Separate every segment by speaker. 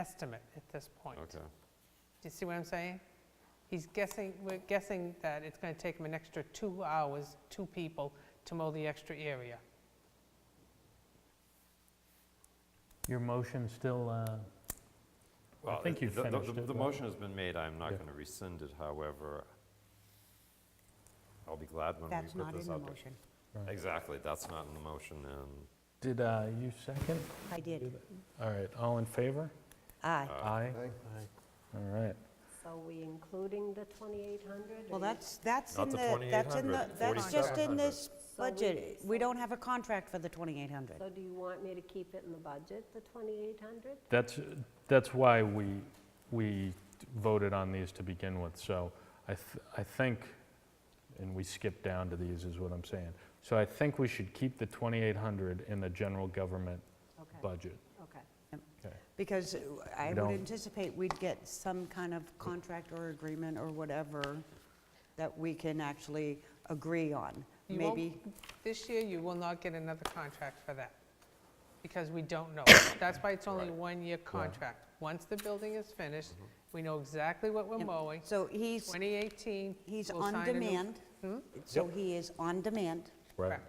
Speaker 1: estimate at this point. Do
Speaker 2: okay.
Speaker 1: you see what I'm saying? He's guessing, we're guessing that it's going to take him an extra two hours, two people, to mow the extra area.
Speaker 3: Your motion still, uh,
Speaker 2: Well,
Speaker 3: think
Speaker 2: it-
Speaker 3: you've
Speaker 2: the- the-
Speaker 3: finished
Speaker 2: the-
Speaker 3: it,
Speaker 2: The
Speaker 3: but-
Speaker 2: motion has been made, I'm not
Speaker 3: Yeah.
Speaker 2: going to rescind it, however, I'll be glad when we
Speaker 4: That's
Speaker 2: put
Speaker 4: not in
Speaker 2: this
Speaker 4: the
Speaker 2: out. there.
Speaker 4: motion.
Speaker 2: Exactly, that's not in the motion, and
Speaker 3: did uh, you second?
Speaker 4: I did. Ah.
Speaker 3: All right, all in favor?
Speaker 4: Aye.
Speaker 2: Uh,
Speaker 3: Aye. All right.
Speaker 5: So we including the 2,800?
Speaker 4: Well, that's, that's
Speaker 2: Not
Speaker 4: in
Speaker 2: the
Speaker 4: the, that's in the,
Speaker 2: 2,800,
Speaker 4: that's just in
Speaker 2: 4,700.
Speaker 4: this
Speaker 5: So we-
Speaker 4: budget. We don't have a contract for the 2,800.
Speaker 5: So do you want me to keep it in the budget, the 2,800?
Speaker 3: That's, that's why we, we voted on these to begin with, so I, th- I think, and we skipped down to these, is what I'm saying. So I think we should keep the 2,800 in the general government
Speaker 5: Okay.
Speaker 3: budget.
Speaker 5: Okay.
Speaker 4: Because I
Speaker 3: We
Speaker 4: would
Speaker 3: don't-
Speaker 4: anticipate we'd get some kind of contract or agreement or whatever that we can actually agree on.
Speaker 1: You won't-
Speaker 4: Maybe,
Speaker 1: This year, you will not get another contract for that, because we don't know. That's why it's only a
Speaker 2: Right. Mm-hmm.
Speaker 1: one-year contract. Once the building is finished, we know exactly what we're
Speaker 4: Yep.
Speaker 1: mowing.
Speaker 4: so he's,
Speaker 1: 2018,
Speaker 4: he's
Speaker 1: we'll
Speaker 4: on
Speaker 1: sign a new-
Speaker 4: demand.
Speaker 1: Hmm?
Speaker 4: So he is on demand,
Speaker 1: Correct.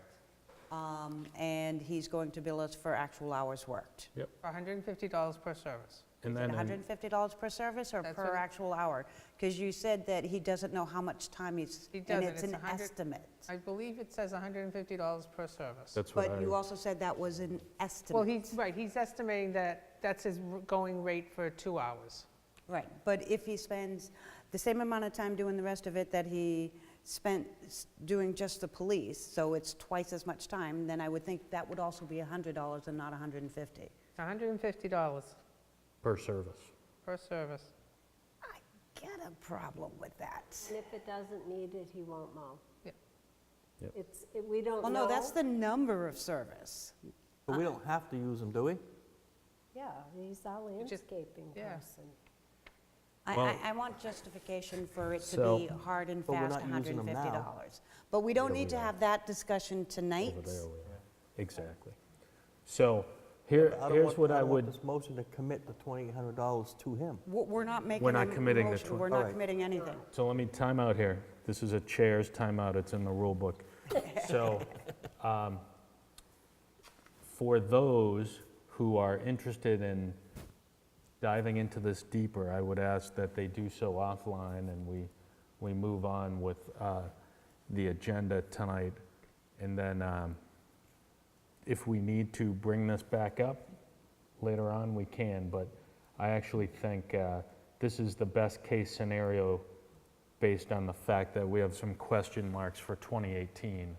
Speaker 4: um, and he's going to bill us for actual hours worked.
Speaker 1: For $150 per service.
Speaker 3: And
Speaker 4: Is it
Speaker 3: then, in-
Speaker 4: $150 per service or
Speaker 1: That's
Speaker 4: per
Speaker 1: what-
Speaker 4: actual hour? Because you said that he doesn't know how much time he's,
Speaker 1: He
Speaker 4: and
Speaker 1: doesn't,
Speaker 4: it's
Speaker 1: it's
Speaker 4: an
Speaker 1: 100
Speaker 4: estimate.
Speaker 1: I believe it says $150 per service.
Speaker 3: that's what
Speaker 4: But you
Speaker 3: I,
Speaker 4: also said that was an
Speaker 1: Well,
Speaker 4: estimate.
Speaker 1: he's, right, he's estimating that that's his r- going rate for two hours.
Speaker 4: Right, but if he spends the same amount of time doing the rest of it that he spent s- doing just the police, so it's twice as much time, then I would think that would also be $100 and not 150.
Speaker 1: It's $150
Speaker 3: per service.
Speaker 1: per service.
Speaker 4: I get a problem with that.
Speaker 5: And if it doesn't need it, he won't mow?
Speaker 1: Yep.
Speaker 3: Yep.
Speaker 5: It's, it- we don't know.
Speaker 4: Well, no, that's the number of service.
Speaker 6: But we don't have to use them, do we?
Speaker 5: Yeah, he's our
Speaker 1: just-
Speaker 5: landscaping
Speaker 1: yeah.
Speaker 5: person.
Speaker 4: I-
Speaker 3: Well-
Speaker 4: I, I want justification for it to
Speaker 3: So-
Speaker 4: be hard and
Speaker 6: But we're
Speaker 4: fast,
Speaker 6: not using them now.
Speaker 4: $150. But we don't
Speaker 3: Yeah, we
Speaker 4: need to
Speaker 3: are.
Speaker 4: have that discussion tonight.
Speaker 3: Over there we are. Exactly. So here,
Speaker 6: I don't
Speaker 3: here's
Speaker 6: want-
Speaker 3: what I
Speaker 6: don't want
Speaker 3: would,
Speaker 6: this motion to commit the $2,800 to him.
Speaker 4: W- We're not making.
Speaker 3: not
Speaker 4: a
Speaker 3: committing the
Speaker 4: motion.
Speaker 3: twen-
Speaker 4: We're
Speaker 6: All
Speaker 4: not
Speaker 6: right.
Speaker 4: committing anything.
Speaker 3: so let me time out here. This is a chair's timeout, it's in the rule book. So um, for those who are interested in diving into this deeper, I would ask that they do so offline and we, we move on with uh, the agenda tonight. And then um, if we need to bring this back up later on, we can. But I actually think uh, this is the best-case scenario based on the fact that we have some question marks for 2018,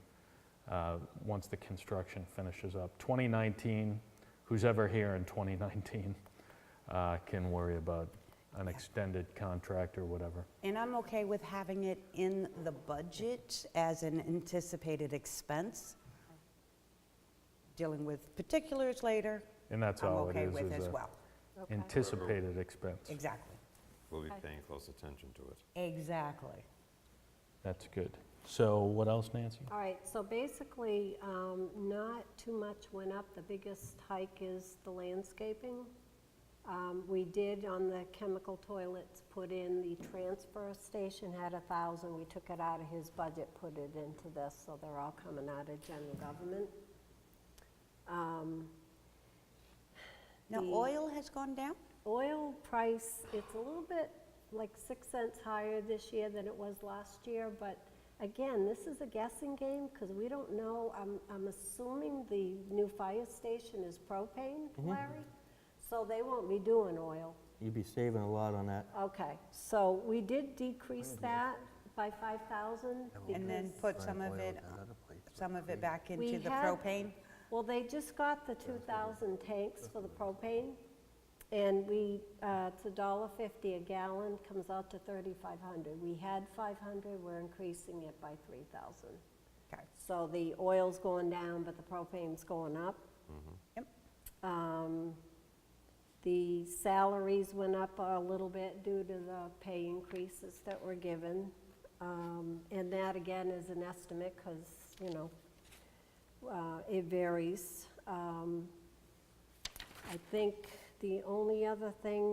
Speaker 3: uh, once the construction finishes up. 2019, who's ever here in 2019 uh, can worry about an extended contract or whatever.
Speaker 4: And I'm okay with having it in the budget as an anticipated expense. Dealing with particulars later,
Speaker 3: And that's
Speaker 4: I'm
Speaker 3: all it
Speaker 4: okay
Speaker 3: is,
Speaker 4: with
Speaker 3: is
Speaker 4: as
Speaker 3: a
Speaker 4: well.
Speaker 5: Okay.
Speaker 3: anticipated expense.
Speaker 4: Exactly.
Speaker 2: we'll be
Speaker 5: Okay.
Speaker 2: paying close attention to it.
Speaker 4: Exactly.
Speaker 3: That's good. So what else, Nancy?
Speaker 5: All right, so basically, um, not too much went up. The biggest hike is the landscaping. Um, We did on the chemical toilets, put in the transfer station, had a thousand. We took it out of his budget, put it into this, so they're all coming out of general government. Um,
Speaker 4: Now,
Speaker 5: The-
Speaker 4: oil has gone down?
Speaker 5: Oil price, it's a little bit like six cents higher this year than it was last year, but again, this is a guessing game because we don't know. I'm, I'm assuming the new fire station is propane,
Speaker 4: Mm-hmm.
Speaker 5: Larry, so they won't be doing oil.
Speaker 6: You'd be saving a lot on that.
Speaker 5: Okay, so we did decrease that by 5,000
Speaker 4: And then
Speaker 5: because-
Speaker 4: put some of it, some of it back into
Speaker 5: We
Speaker 4: the
Speaker 5: had-
Speaker 4: propane?
Speaker 5: Well, they just got the 2,000 tanks for the propane, and we, uh, it's a dollar fifty a gallon, comes out to 3,500. We had 500, we're increasing it by 3,000.
Speaker 4: Okay.
Speaker 5: So the oil's going down, but the propane's going up.
Speaker 4: Mm-hmm. Yep.
Speaker 5: Um, The salaries went up a little bit due to the pay increases that were given. Um, And that, again, is an estimate, because, you know, uh, it varies. Um, I think The only other thing